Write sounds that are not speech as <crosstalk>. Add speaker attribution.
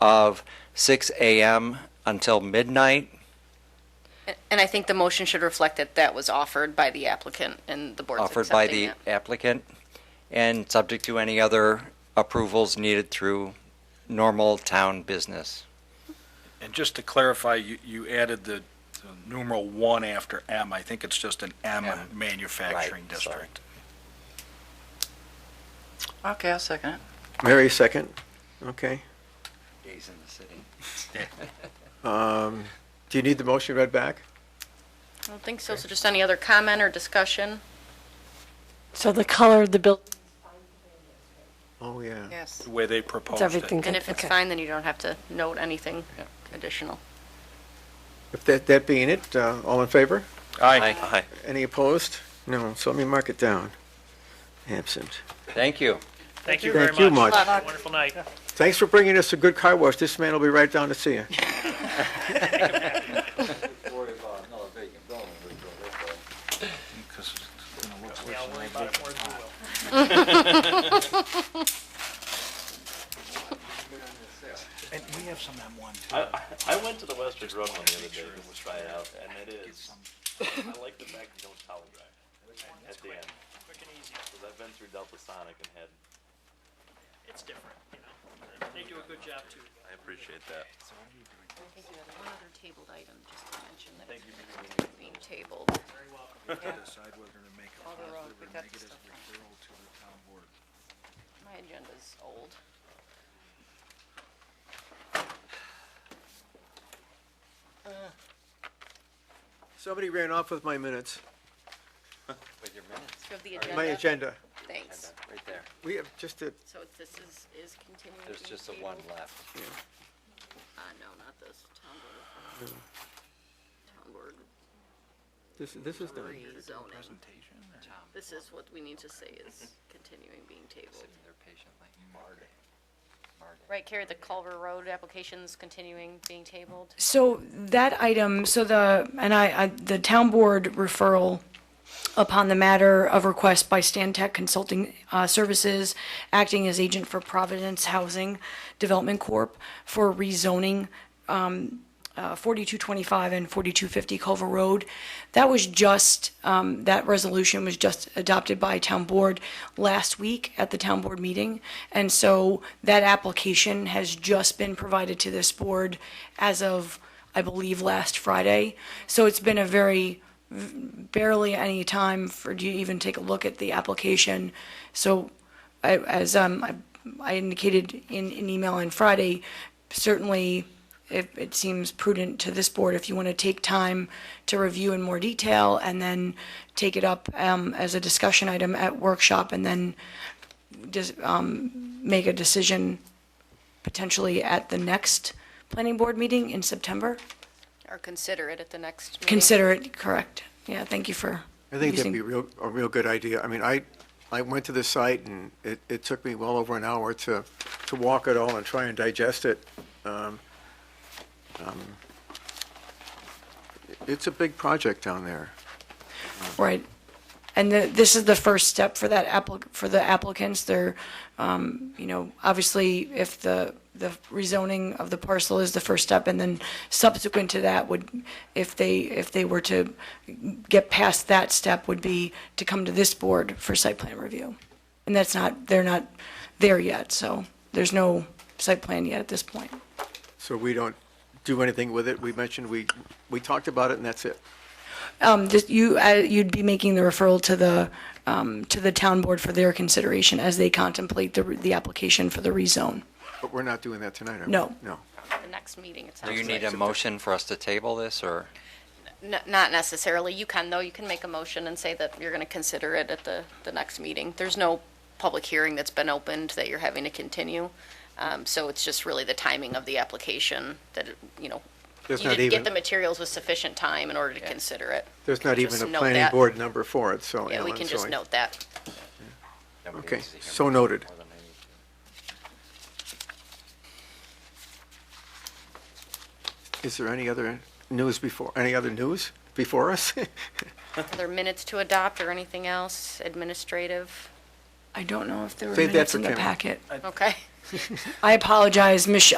Speaker 1: of 6 a.m. until midnight.
Speaker 2: And I think the motion should reflect that that was offered by the applicant and the board's
Speaker 1: offered by
Speaker 2: accepting
Speaker 1: the
Speaker 2: it.
Speaker 1: applicant and subject to any other approvals needed through normal town business.
Speaker 3: And just to clarify, you, you added the the numeral one after M. I think it's just an M
Speaker 4: Yeah.
Speaker 3: manufacturing
Speaker 1: Right, sorry.
Speaker 3: district.
Speaker 4: Okay, I'll second it.
Speaker 5: Mary, second. Okay.
Speaker 1: Days in the city.
Speaker 5: Um, Do you need the motion read back?
Speaker 2: I don't think so. So just any other comment or discussion?
Speaker 6: So the color of the building,
Speaker 5: Oh, yeah.
Speaker 4: Yes.
Speaker 3: The way they proposed
Speaker 6: it's
Speaker 3: it.
Speaker 6: everything.
Speaker 2: And if it's
Speaker 6: Okay.
Speaker 2: fine, then you don't have to note anything additional.
Speaker 5: If that, that being it, uh, all in favor?
Speaker 3: Aye.
Speaker 5: Any opposed? No, so let me mark it down. Absent.
Speaker 1: Thank you.
Speaker 7: Thank you very
Speaker 5: Thank
Speaker 7: much.
Speaker 5: you much.
Speaker 7: Have a Wonderful night.
Speaker 5: Thanks for bringing us a good car wash. This man will be right down to see you.
Speaker 3: Because it's gonna look
Speaker 7: Yeah,
Speaker 3: worse
Speaker 7: I'll
Speaker 3: than
Speaker 7: worry
Speaker 3: they did.
Speaker 7: about it more as we will.
Speaker 6: <laughs>
Speaker 3: <laughs> And we have some M1 too.
Speaker 8: I, I- I went to the Western Run one the other day just to try it out, and it is, <laughs> I like the fact you don't towel dry at the end.
Speaker 7: Quick and easy.
Speaker 8: Because I've been through Delta Sonic and had,
Speaker 7: It's different, you know. They do a good job too.
Speaker 8: I appreciate that.
Speaker 2: I think you had one other tabled item just to mention that was being tabled.
Speaker 7: Very welcome.
Speaker 3: Decide whether to make a
Speaker 4: All the
Speaker 3: positive
Speaker 4: roads, we
Speaker 3: or
Speaker 4: got the
Speaker 3: negative
Speaker 4: stuff
Speaker 3: referral to the town board.
Speaker 2: My agenda's old.
Speaker 5: Somebody ran off with my minutes,
Speaker 1: With your minutes,
Speaker 2: Do you have the
Speaker 5: my
Speaker 2: agenda?
Speaker 5: agenda.
Speaker 2: Thanks.
Speaker 1: right there.
Speaker 5: We have just a,
Speaker 2: So it's- this is, is continuing.
Speaker 1: There's
Speaker 2: to be
Speaker 1: just the
Speaker 2: tabled?
Speaker 1: one left.
Speaker 2: Uh, no, not this. Town board. Town board
Speaker 5: this, this is done.
Speaker 2: rezoning.
Speaker 3: Presentation or-
Speaker 2: This is what we need to say is continuing being tabled.
Speaker 1: They're patiently.
Speaker 2: Right, Carrie, the Culver Road application's continuing being tabled?
Speaker 6: So that item, so the, and I, I- the town board referral upon the matter of request by Stan Tech Consulting uh, Services, acting as agent for Providence Housing Development Corp. for rezoning 4225 and 4250 Culver Road. That was just, um, that resolution was just adopted by town board last week at the town board meeting. And so that application has just been provided to this board as of, I believe, last Friday. So it's been a very, v- barely any time for, you to even take a look at the application. So I- as um, I I indicated in an email on Friday, certainly it it seems prudent to this board if you want to take time to review in more detail and then take it up um, as a discussion item at workshop and then dis- um, make a decision potentially at the next planning board meeting in September.
Speaker 2: Or consider it at the next meeting?
Speaker 6: Consider it correct. Yeah, thank you for
Speaker 5: I think that'd
Speaker 6: using-
Speaker 5: be real, a real good idea. I mean, I, I went to the site and it, it took me well over an hour to, to walk it all and try and digest it. Um, um, It's a big project down there.
Speaker 6: Right. And the, this is the first step for that applic, for the applicants. They're, um, you know, obviously, if the, the rezoning of the parcel is the first step, and then subsequent to that would, if they, if they were to get past that step, would be to come to this board for site plan review. And that's not, they're not there yet, so there's no site plan yet at this point.
Speaker 5: So we don't do anything with it. We mentioned, we, we talked about it and that's it.
Speaker 6: Um, just you, uh, you'd be making the referral to the, um, to the town board for their consideration as they contemplate the, the application for the rezone.
Speaker 5: But we're not doing that tonight, are we?
Speaker 6: No.
Speaker 5: No.
Speaker 2: The next meeting, it
Speaker 1: Do
Speaker 2: sounds
Speaker 1: you need a
Speaker 2: like.
Speaker 1: motion for us to table this, or?
Speaker 2: N- Not necessarily. You can, though. You can make a motion and say that you're going to consider it at the, the next meeting. There's no public hearing that's been opened that you're having to continue. Um, So it's just really the timing of the application that, you know, you
Speaker 5: There's not
Speaker 2: didn't get the
Speaker 5: even,
Speaker 2: materials with sufficient time in order to consider it.
Speaker 5: there's not even
Speaker 2: just
Speaker 5: a
Speaker 2: note
Speaker 5: planning
Speaker 2: that.
Speaker 5: board number for it, so.
Speaker 2: Yeah, we
Speaker 5: Ellen,
Speaker 2: can
Speaker 5: so
Speaker 2: just
Speaker 5: I-
Speaker 2: note that.
Speaker 1: Nobody
Speaker 5: Okay,
Speaker 1: needs to hear
Speaker 5: so
Speaker 1: more
Speaker 5: noted.
Speaker 1: than I need to.
Speaker 5: Is there any other news before, any other news before us? <laughs>
Speaker 2: Are there minutes to adopt or anything else administrative?
Speaker 6: I don't know if there were
Speaker 5: Save that
Speaker 6: minutes
Speaker 5: for
Speaker 6: in the
Speaker 5: Kim.
Speaker 6: packet.
Speaker 2: Okay.
Speaker 6: I apologize, Mich,